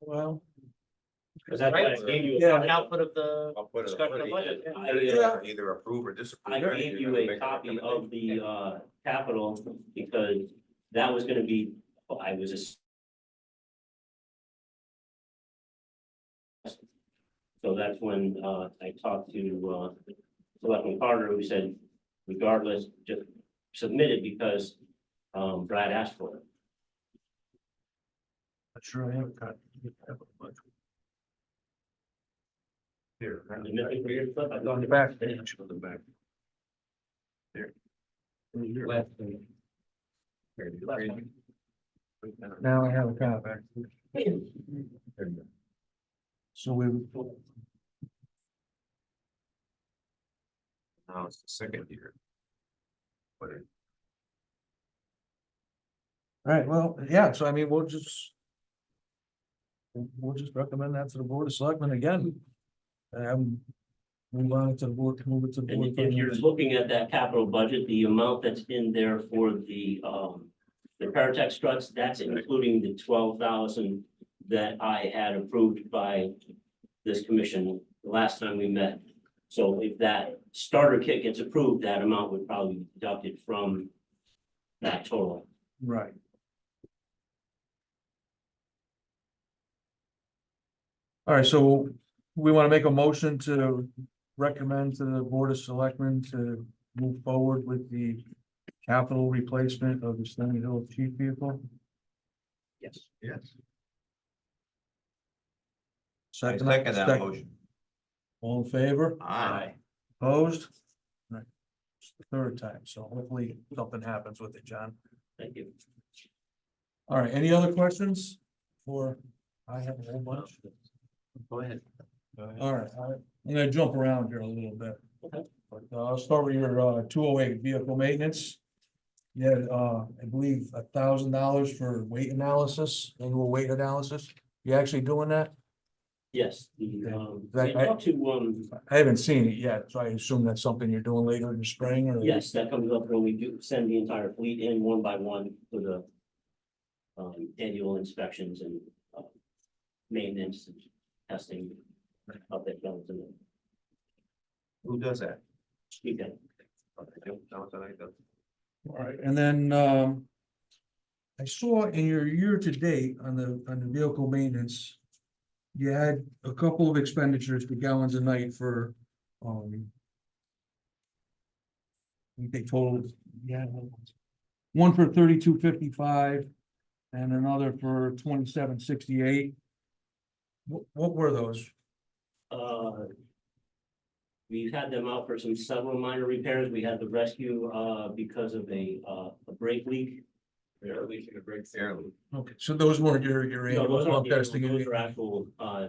Well, Cause that's Right. what I gave you. Yeah. an output of the, I'll put it, Discussion put of it budget. in. I, Put it in, uh, Either approve or disapprove. I You're gave gonna you a make copy of recommendation. the, uh, capital because that was gonna be, oh, I was just. So that's when, uh, I talked to, uh, Selectman Carter, who said regardless, just submit it because, um, Brad asked for it. I'm sure I have got. Here, Am I missing for your stuff? I On thought- the back page. On the back. There. Now I have a copy. So we. Now it's the second year. But it- All right, well, yeah, so I mean, we'll just. We'll just recommend that to the board of selectmen again. Um. Move on to the board, move it to the board. And if you're looking at that capital budget, the amount that's in there for the, um, the Paratech struts, that's including the twelve thousand that I had approved by this commission the last time we met. So if that starter kit gets approved, that amount would probably be deducted from that total. Right. All right, so we want to make a motion to recommend to the Board of Selectmen to move forward with the capital replacement of the Stony Hill chief vehicle. Yes. Yes. I Second, second that second. motion. All in favor? Aye. Opposed? Right. It's the third time, so hopefully something happens with it, John. Thank you. All right, any other questions? Or I have a whole bunch. Go ahead. All right, all right. I'm gonna jump around here a little bit. Okay. But uh, I'll start with your uh two oh eight vehicle maintenance. Yeah, uh, I believe a thousand dollars for weight analysis, annual weight analysis. You actually doing that? Yes, the, um, Zach, we I- talked to, um, I haven't seen it yet, so I assume that's something you're doing later in the spring or? Yes, that comes up when we do send the entire fleet in one by one for the um, annual inspections and uh, maintenance and testing of that goes in the Who does that? weekend. Okay, that was what I thought. All right, and then, um. I saw in your year-to-date on the, on the vehicle maintenance. You had a couple of expenditures per gallons a night for, um. I think They totaled, yeah. One for thirty-two fifty-five and another for twenty-seven sixty-eight. What, what were those? Uh, We've had them out for some several minor repairs. We had the rescue uh, because of a uh, a brake leak. Air leak and a brake fairly. Okay, so those weren't your, your. No, those annual aren't the- testing. Those are actual uh,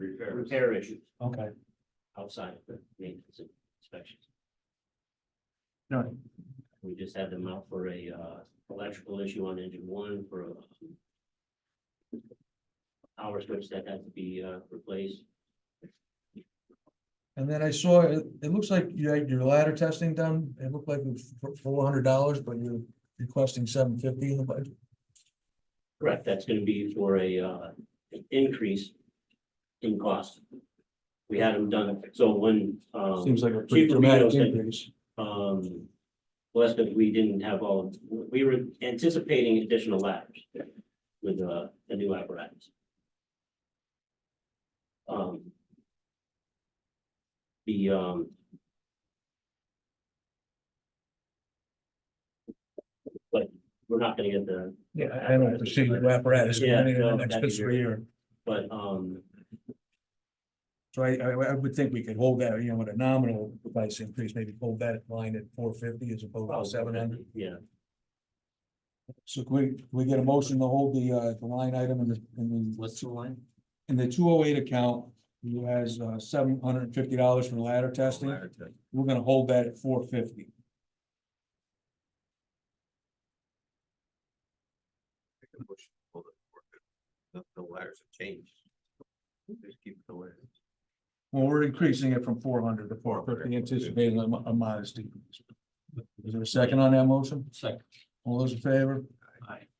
Repairs. repair issues Okay, outside of the maintenance and inspections. all right. We just had them out for a uh electrical issue on engine one for a. Power switch that had to be uh replaced. And then I saw, it, it looks like you had your ladder testing done, it looked like it was four hundred dollars, but you're requesting seven fifty in the budget. Correct, that's gonna be for a uh an increase in cost. We had them done, so when um. Seems like a pretty Chief Romito dramatic said- increase. Um, well, that's because we didn't have all, we were anticipating additional ladders with uh, the new apparatus. Um. The um. But we're not gonna get the, Yeah, I I don't foresee the apparatus Yeah, coming in the no, next that'd be fiscal great. year, but um, so I, I, I would think we could hold that, you know, with a nominal price increase, maybe hold that line at four fifty as opposed to seven hundred. yeah, So can we, can we get a motion to hold the, uh, the line item in the, in the. What's the line? In the two oh eight account, you has, uh, seven hundred and fifty dollars for ladder testing. Ladder test. We're gonna hold that at four fifty. Make a motion to hold it for- The the ladders have changed. Just keep the ladders. Well, we're increasing it from four hundred to four 450, fifty, anticipating a mo- a modest decrease. Is there a second on that motion? Second. All those in favor? Aye.